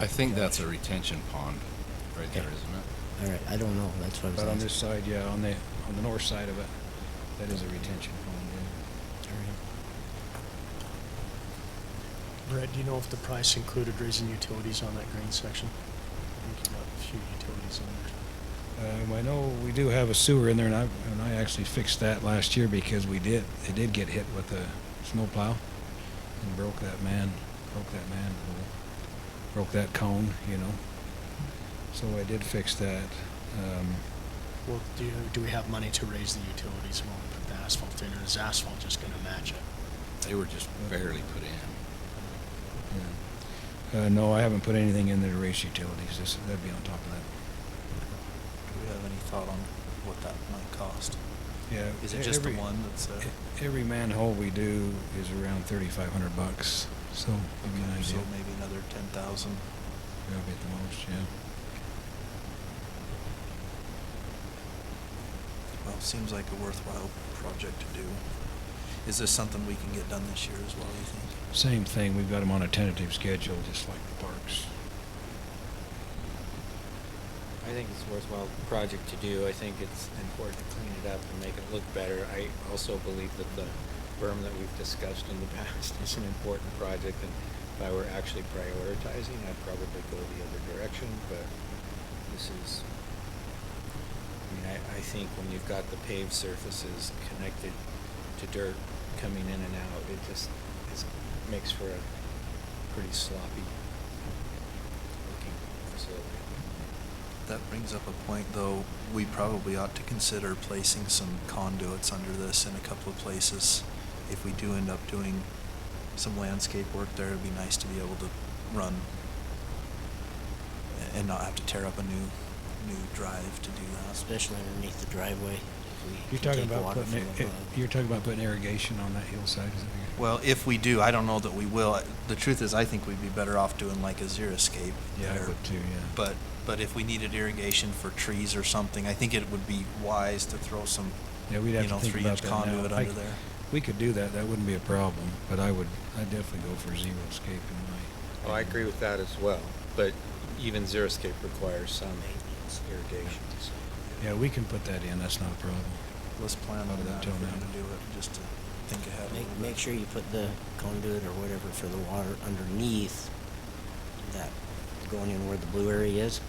I think that's a retention pond right there, Okay. isn't All right, I don't know. That's what I was But on asking. this side, yeah, on the, on the north side of it, that is a retention pond, yeah. All right. Brett, do you know if the price included raising utilities on that green section? I think you got a few utilities on there. Um, I know we do have a sewer in there, and I, and I actually fixed that last year because we did, it did get hit with a snowplow and broke that man, broke that man, broke that cone, you know. So I did fix that. Um, Well, do, you, do we have money to raise the utilities when we put the asphalt in, or is asphalt just gonna match it? it? They were just barely put in. yeah. Uh, no, I haven't put anything in there to raise utilities. This, that'd be on top of that. Do we have any thought on what that might cost? Yeah. Is it e- just the every- one that's, uh, e- Every manhole we do is around thirty-five hundred bucks, so give you an okay, so idea. maybe another ten thousand? That'll be at the most, yeah. Well, it seems like a worthwhile project to do. Is this something we can get done this year as well, you think? Same thing, we've got them on a tentative schedule, just like the parks. I think it's a worthwhile project to do. I think it's important to clean it up and make it look better. I also believe that the berm that we've discussed in the past is an important project, and if I were actually prioritizing, I'd probably go the other direction, but this is, I mean, I, I think when you've got the paved surfaces connected to dirt coming in and out, it just is, makes for a pretty sloppy looking facility. That brings up a point, though, we probably ought to consider placing some conduits under this in a couple of places. If we do end up doing some landscape work there, it'd be nice to be able to run a- and not have to tear up a new, new drive to do that. Especially underneath the driveway. if we can You're talking take about water from putting, it- it- above. you're talking about putting irrigation on that hillside, is that? Well, if we do, I don't know that we will. The truth is, I think we'd be better off doing like a zero escape. Yeah, I there. would too, yeah. But, but if we needed irrigation for trees or something, I think it would be wise to throw some, Yeah, we'd have you know, to think about three-inch that now. conduit I- under there. We could do that, that wouldn't be a problem, but I would, I'd definitely go for zero escape in my. Well, Oh, I agree with that as well, but even Xeriscape requires some irrigation. so- Yeah, we can put that in, that's not a problem. Let's plan Other on than that till if we're now. gonna do it, just to think ahead a little Make, bit. make sure you put the conduit or whatever for the water underneath that going in where the blue area is.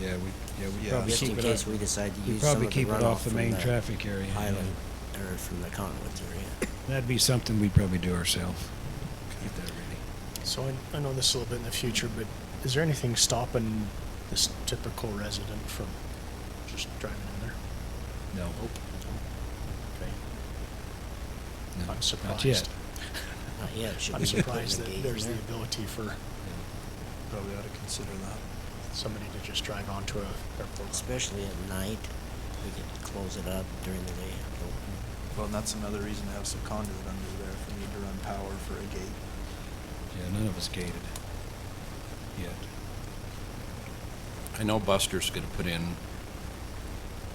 Yeah, we, yeah, we Yeah. probably Just keep it in up. case we decide to we'd use some probably of the keep it runoff off the from main the traffic area, yeah. Highland, or from the conduits area. That'd be something we'd probably do ourselves. Get that ready. So I, I know this a little bit in the future, but is there anything stopping this typical resident from just driving in there? No. Okay. No, I'm Not yet. surprised. Not yet, should I'm we be putting surprised a gate that in there's the there? ability for Probably ought to consider that. somebody to just drive onto a airport. Especially at night, we could close it up during the day. Well, and that's another reason to have some conduit under there if we need to run power for a gate. Yeah, none of us gated yet. I know Buster's gonna put in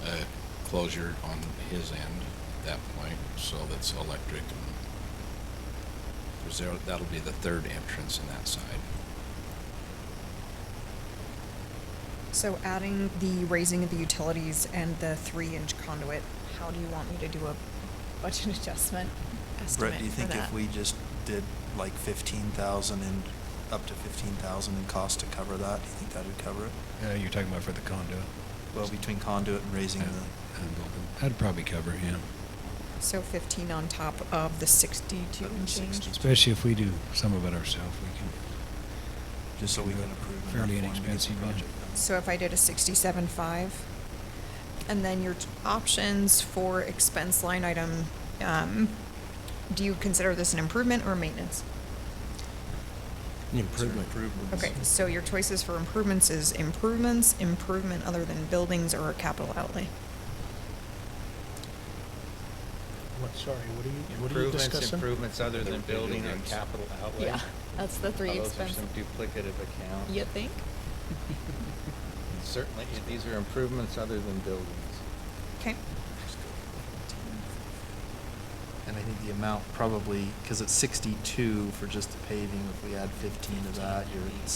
a closure on his end at that point, so that's electric and, cause there, that'll be the third entrance on that side. So adding the raising of the utilities and the three inch conduit, how do you want me to do a budget adjustment estimate Brett, do you for think if that? we just did like fifteen thousand and, up to fifteen thousand in cost to cover that, do you think that would cover it? Uh, you're talking about for the condo. Well, between conduit and raising Yeah, the, and building. That'd probably cover him, So fifteen on top of the sixty-two Of the and change? 60. especially if we do some of it ourselves, we can. just so we do can it approve. enough Fairly for him to get the inexpensive, yeah. project done. So if I did a sixty-seven five, and then your t- options for expense line item, um, do you consider this an improvement or maintenance? An Sort of improvement. improvements. Okay, so your choices for improvements is improvements, improvement other than buildings, or a capital outlay. What, sorry, what are you, what are you Improvements, discussing? improvements other than building and Buildings. capital outlay. that's the Oh, Those are some duplicative accounts. think? Certainly, these are improvements other than buildings. Okay. And I think the amount probably, because it's sixty-two for just the paving, if we add fifteen to that, you're at